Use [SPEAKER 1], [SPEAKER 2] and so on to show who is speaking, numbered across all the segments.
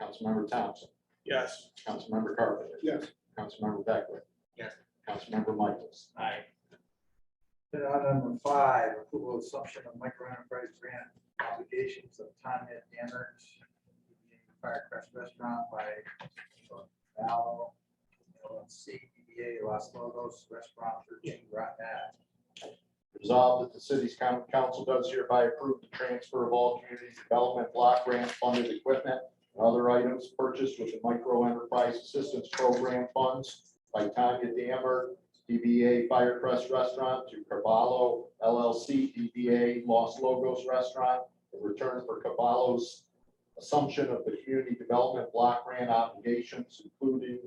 [SPEAKER 1] Councilmember Thompson,
[SPEAKER 2] Yes.
[SPEAKER 1] Councilmember Carpenter.
[SPEAKER 2] Yes.
[SPEAKER 1] Councilmember Beckwith.
[SPEAKER 3] Yes.
[SPEAKER 1] Councilmember Michaels.
[SPEAKER 3] Aye.
[SPEAKER 4] Then item number five, approval of assumption of microenterprise grant obligations of Tanya Dannert. Firecrest Restaurant by Val LLC, DBA Los Lobos Restaurant thirteen Rotten Ave.
[SPEAKER 1] Resolved that the city's coun- council does hereby approve the transfer of all community development block grant funded equipment and other items purchased with the micro enterprise assistance program funds by Tanya Dammer, DBA Firecrest Restaurant to Caballo LLC, DBA Los Logos Restaurant in return for Caballo's assumption of the community development block grant obligations, including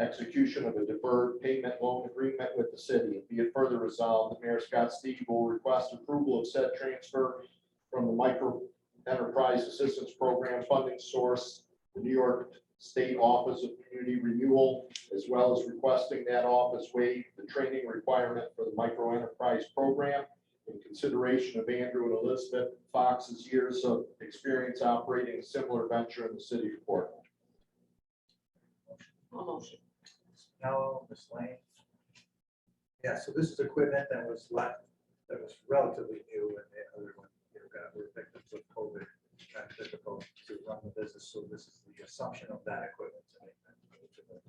[SPEAKER 1] execution of a deferred payment loan agreement with the city. Be it further resolved, the mayor Scott Steve will request approval of said transfer from the micro enterprise assistance program funding source, the New York State Office of Community Renewal, as well as requesting that office waive the training requirement for the micro enterprise program in consideration of Andrew and Elizabeth Fox's years of experience operating a similar venture in the city of Portland.
[SPEAKER 5] I'll motion.
[SPEAKER 4] No, Miss Lane. Yeah, so this is equipment that was left, that was relatively new and the other one, you know, got, were victims of COVID. Kind of difficult to run the business, so this is the assumption of that equipment to make that. move to the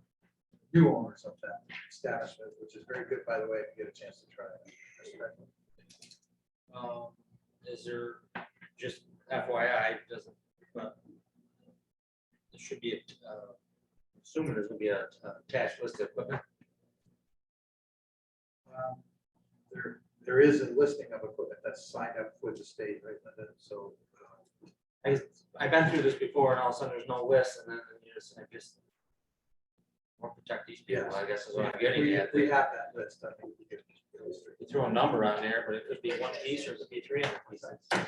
[SPEAKER 4] New owners of that establishment, which is very good, by the way, if you get a chance to try it.
[SPEAKER 3] Um, is there, just FYI, it doesn't, but there should be, a, uh, assuming there's gonna be a a attached list of equipment.
[SPEAKER 4] Um, There, there is a listing of equipment that's signed up with the state, right, Linda? so. uh,
[SPEAKER 3] I, I've been through this before and all of a sudden there's no list and then you just, I just more protect these people, I guess is what I'm getting
[SPEAKER 4] We
[SPEAKER 3] at.
[SPEAKER 4] we have that list, I think. we could illustrate.
[SPEAKER 3] You throw a number on there, but it could be one piece or it could be three hundred pieces.
[SPEAKER 5] The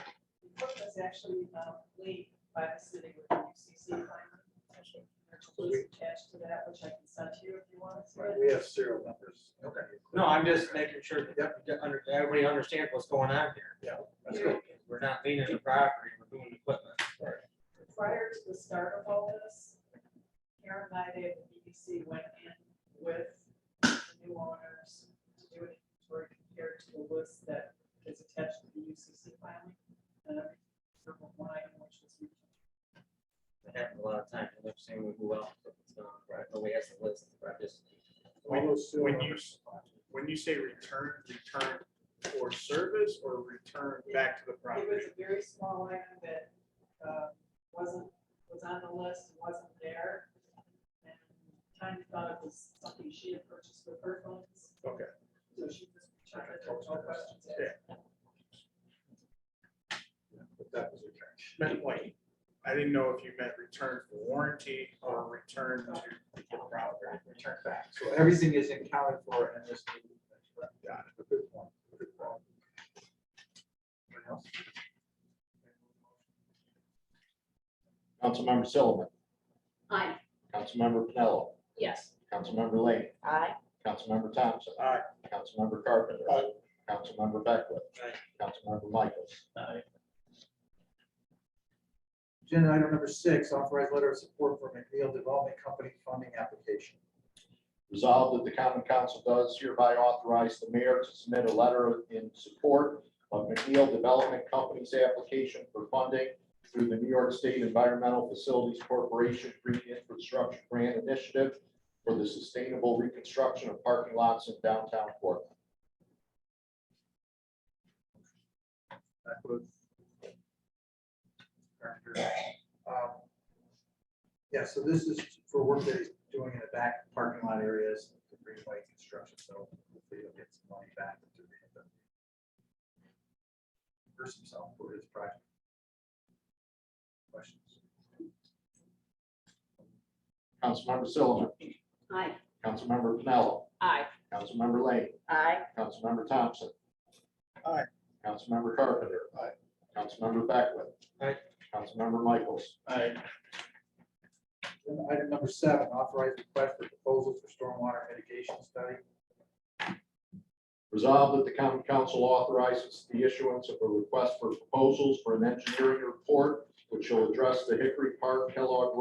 [SPEAKER 5] book was actually um, leaked by the city with the UCC. plan. There's a list attached to that, which I can send to you if you want to see
[SPEAKER 4] Right,
[SPEAKER 5] it.
[SPEAKER 4] We have serial numbers.
[SPEAKER 3] Okay. No, I'm just making sure that
[SPEAKER 4] Yep.
[SPEAKER 3] that under- everybody understands what's going on here.
[SPEAKER 4] That's good.
[SPEAKER 3] We're not leaning the property, we're doing equipment.
[SPEAKER 5] Prior to the start of all this, Karen and I, they at the BBC went in with the new owners to do an inventory compared to the list that is attached to the UCC filing. And every single one item which was
[SPEAKER 3] It happened a lot of times, I'm saying we go out, but it's not, right, nobody has the list, right, just.
[SPEAKER 4] All those serial
[SPEAKER 2] When you-
[SPEAKER 4] numbers.
[SPEAKER 2] When you say return, return for service or return back to the
[SPEAKER 5] It
[SPEAKER 2] property?
[SPEAKER 5] was a very small item that uh, wasn't, was on the list, wasn't there. And Tanya thought it was something she had purchased with her funds,
[SPEAKER 2] Okay.
[SPEAKER 5] so she just checked it, no questions asked.
[SPEAKER 4] Yeah, but That was a
[SPEAKER 2] Meant like, I didn't know if you meant return for warranty or return to the property.
[SPEAKER 4] return back. So everything is accounted for in this. new- Got it. Good one. Good one. Anyone else?
[SPEAKER 1] Councilmember Sullivan.
[SPEAKER 5] Aye.
[SPEAKER 1] Councilmember Pinello,
[SPEAKER 5] Yes.
[SPEAKER 1] Councilmember Lane,
[SPEAKER 5] Aye.
[SPEAKER 1] Councilmember Thompson.
[SPEAKER 2] Aye.
[SPEAKER 1] Councilmember Carpenter.
[SPEAKER 2] Aye.
[SPEAKER 1] Councilmember Beckwith.
[SPEAKER 3] Aye.
[SPEAKER 1] Councilmember Michaels.
[SPEAKER 4] Agenda item number six, authorized letter of support for McNeil Development Company funding application.
[SPEAKER 1] Resolved that the common council does hereby authorize the mayor to submit a letter in support of McNeil Development Company's application for funding through the New York State Environmental Facilities Corporation Green Infrastructure Grant Initiative for the sustainable reconstruction of parking lots in downtown Portland.
[SPEAKER 4] That was. Um, Yeah, so this is for work that he's doing in the back parking lot areas, the greenway construction, so hopefully he'll get some money back. to re- the- Reimburse himself for his project. Questions?
[SPEAKER 1] Councilmember Sullivan.
[SPEAKER 5] Aye.
[SPEAKER 1] Councilmember Pinello,
[SPEAKER 5] Aye.
[SPEAKER 1] Councilmember Lane,
[SPEAKER 5] Aye.
[SPEAKER 1] Councilmember Thompson.
[SPEAKER 2] Aye.
[SPEAKER 1] Councilmember Carpenter.
[SPEAKER 2] Aye.
[SPEAKER 1] Councilmember Beckwith.
[SPEAKER 3] Aye.
[SPEAKER 1] Councilmember Michaels.
[SPEAKER 2] Aye.
[SPEAKER 4] Agenda Item number seven, authorized request for proposals for stormwater mitigation study.
[SPEAKER 1] Resolved that the common council authorizes the issuance of a request for proposals for an engineering report which will address the Hickory Park Kellogg